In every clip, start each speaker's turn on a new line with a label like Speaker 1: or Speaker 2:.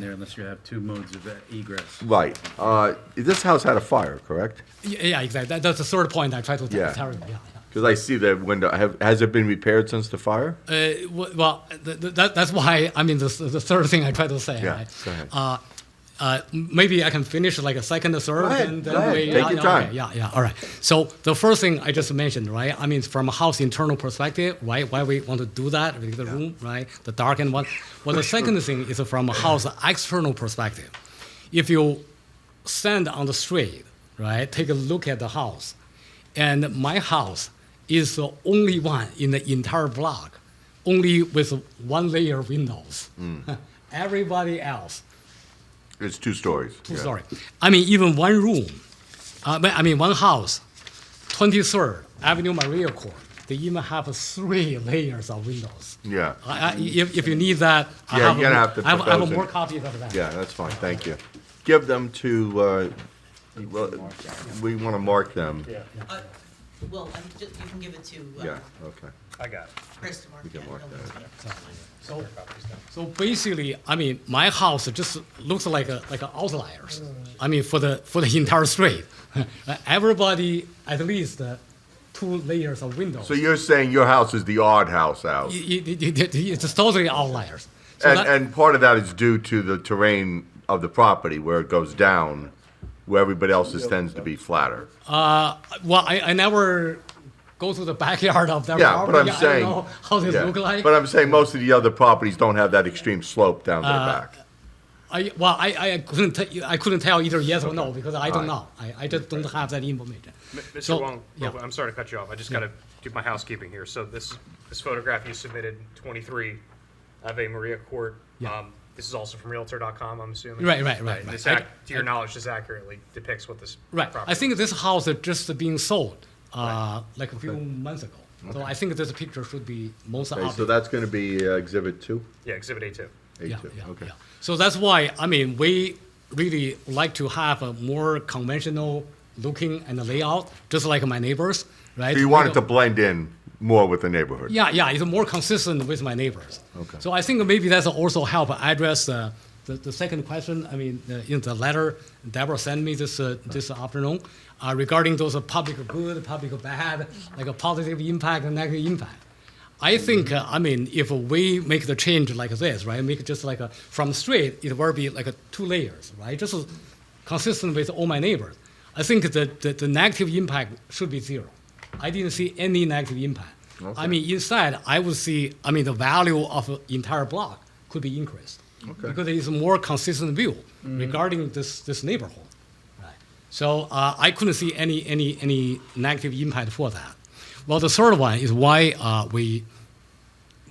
Speaker 1: there unless you have two modes of egress.
Speaker 2: Right. Uh, This house had a fire, correct?
Speaker 3: Yeah, yeah, exactly. That- That's the third point I tried to
Speaker 2: Yeah.
Speaker 3: tell tell you. Yeah, yeah.
Speaker 2: Because I see that window. Have, has it been repaired since the fire?
Speaker 3: Uh, w- well, th- th- that, that's why I mean the, the third thing I tried to say.
Speaker 2: Yeah,
Speaker 3: right?
Speaker 2: go ahead.
Speaker 3: Uh, uh, maybe I can finish like a second, a third,
Speaker 2: Go ahead,
Speaker 3: and
Speaker 2: go
Speaker 3: then
Speaker 2: ahead.
Speaker 3: we.
Speaker 2: Take your
Speaker 3: yeah,
Speaker 2: time.
Speaker 3: okay, yeah, yeah. All right. So the first thing I just mentioned, right? I mean, from a house internal perspective, right? Why we want to do that with the room, right? The dark and one. Well, the second thing is from a house external perspective. If you stand on the street, right? Take a look at the house, and my house is the only one in the entire block, only with one layer windows.
Speaker 2: Mm.
Speaker 3: Everybody else
Speaker 2: It's two stories.
Speaker 3: Two
Speaker 2: Yeah.
Speaker 3: story. I mean, even one room, uh, but I mean, one house, 23rd Avenue Maria Court, they even have three layers of windows.
Speaker 2: Yeah.
Speaker 3: I, I, if, if you need that, I
Speaker 2: Yeah,
Speaker 3: have,
Speaker 2: you're
Speaker 3: a,
Speaker 2: gonna have to
Speaker 3: I have, I have
Speaker 2: propose it.
Speaker 3: more copies of that.
Speaker 2: Yeah, that's fine. Thank you. Give them to, uh, well, we want to mark them.
Speaker 4: Uh, Well, I mean, just, you can give it to, uh,
Speaker 2: Yeah, okay.
Speaker 5: I got it.
Speaker 4: Chris tomorrow.
Speaker 2: can mark that.
Speaker 3: So, so basically, I mean, my house just looks like a, like an outliers. I mean, for the for the entire street, everybody at least uh, two layers of windows.
Speaker 2: So you're saying your house is the odd house out?
Speaker 3: It- it- it- it- it's totally outliers. So
Speaker 2: And,
Speaker 3: that-
Speaker 2: and part of that is due to the terrain of the property where it goes down, where everybody else's tends to be flatter.
Speaker 3: Well, I, I never go to the backyard of that
Speaker 2: Yeah,
Speaker 3: property.
Speaker 2: but I'm
Speaker 3: I
Speaker 2: saying.
Speaker 3: don't know how they
Speaker 2: yeah.
Speaker 3: look like.
Speaker 2: But I'm saying most of the other properties don't have that extreme slope down
Speaker 3: Uh,
Speaker 2: their back.
Speaker 3: I, well, I, I couldn't tell you, I couldn't tell either yes or no because I don't know. I, I just don't have that information. So,
Speaker 5: Mr. Wong,
Speaker 3: yeah.
Speaker 5: real quick, I'm sorry to cut you off. I just got to do my housekeeping here. So this, this photograph you submitted, 23 Ave Maria Court.
Speaker 3: Yeah.
Speaker 5: Um, This is also from Realtor.com, I'm assuming?
Speaker 3: Right, right, right,
Speaker 5: and
Speaker 3: right.
Speaker 5: This,
Speaker 3: I-
Speaker 5: ac- to your knowledge, this accurately depicts what this
Speaker 3: Right.
Speaker 5: property
Speaker 3: I think this house is just being sold uh, like a few months ago. So I think this picture should be most
Speaker 2: Okay,
Speaker 3: updated.
Speaker 2: so that's gonna be uh, exhibit two?
Speaker 5: Yeah, Exhibit A2.
Speaker 2: A
Speaker 3: yeah,
Speaker 2: two,
Speaker 3: yeah,
Speaker 2: okay.
Speaker 3: yeah. So that's why I mean we really like to have a more conventional looking and layout, just like my neighbors, right?
Speaker 2: So you wanted
Speaker 3: wanted
Speaker 2: to blend in more with the neighborhood?
Speaker 3: Yeah, yeah, it's more consistent with my neighbors.
Speaker 2: Okay.
Speaker 3: So I think maybe that's also help address uh, the, the second question. I mean, uh, in the letter Deborah sent me this uh, this afternoon uh, regarding those uh, public good, public bad, like a positive impact and negative impact. I think uh, I mean if we make the change like this, right? Make it just like a, from straight, it will be like a two layers, right? Just consistent with all my neighbors. I think the, the, the negative impact should be zero. I didn't see any negative impact. I mean, inside, I would see, I mean, the value of an entire block could be increased. Because it's a more consistent view regarding this, this neighborhood. Right. So uh, I couldn't see any, any, any negative impact for that. Well, the third one is why uh, we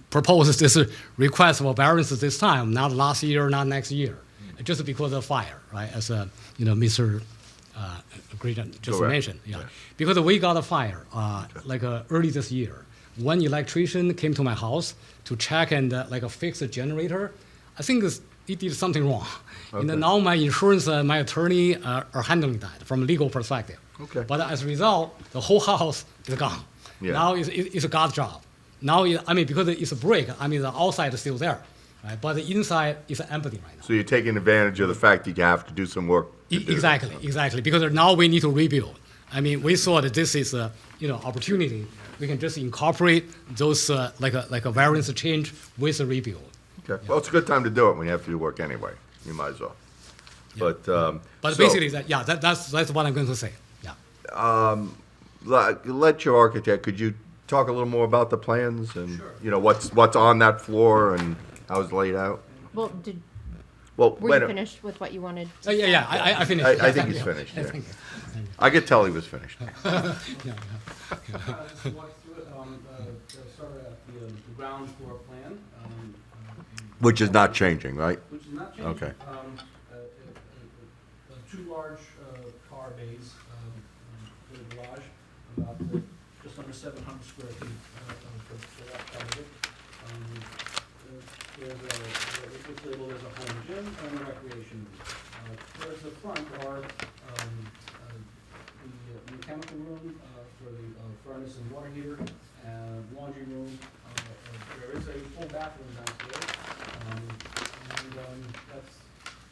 Speaker 3: propose this uh, request for variance this time, not last year, not next year, just because of fire, right? As uh, you know, Mr. Uh, Grayson just
Speaker 2: Correct.
Speaker 3: mentioned, yeah. Because we got a fire uh, like uh, early this year. One electrician came to my house to check and uh, like uh, fix the generator. I think it's- he did something wrong. And then now my insurance, uh, my attorney uh, are handling that from legal perspective.
Speaker 2: Okay.
Speaker 3: But as a result, the whole house is gone.
Speaker 2: Yeah.
Speaker 3: Now it's, it- it's a God's job. Now, it, I mean, because it's a break, I mean, the outside is still there, right? But the inside is empty right now.
Speaker 2: So you're taking advantage of the fact that you have to do some work? to
Speaker 3: E-
Speaker 2: do.
Speaker 3: Exactly, exactly. Because now we need to rebuild. I mean, we saw that this is a you know opportunity. We can just incorporate those uh, like a like a variance change with a rebuild.
Speaker 2: Okay, well, it's a good time to do it when you have to do work anyway. You might as well. But, um.
Speaker 3: But
Speaker 2: so-
Speaker 3: basically, that yeah, that, that's that's what I'm going to say. Yeah.
Speaker 2: Let let your architect, could you talk a little more about the plans and, you know, what's, what's on that floor and how it's laid out?
Speaker 6: Well, did,
Speaker 2: Well,
Speaker 6: were
Speaker 2: wait,
Speaker 6: you
Speaker 2: a-
Speaker 6: finished with what you wanted?
Speaker 3: Uh, yeah, yeah, I, I- I finished.
Speaker 2: I- I
Speaker 3: Yeah,
Speaker 2: think
Speaker 3: thank
Speaker 2: he's
Speaker 3: you.
Speaker 2: finished,
Speaker 3: Yeah,
Speaker 2: yeah.
Speaker 3: thank you.
Speaker 2: I could tell he was finished.
Speaker 7: Uh, just walk through it, um, uh, uh, start at the, um, the ground floor plan, um,
Speaker 2: Which is not changing, right?
Speaker 7: which is not changing.
Speaker 2: Okay.
Speaker 7: Um, uh, uh, uh, uh, two large, uh, car bays, um, um, for the garage, about, uh, just under seven hundred square feet, uh, uh, for, for that part of it. Um, uh, There's a, uh, it's labeled as a home gym and a recreation. room. Uh, towards the front are, um, uh, the uh, mechanical room, uh, for the uh, furnace and water heater, uh, laundry room, uh, Um,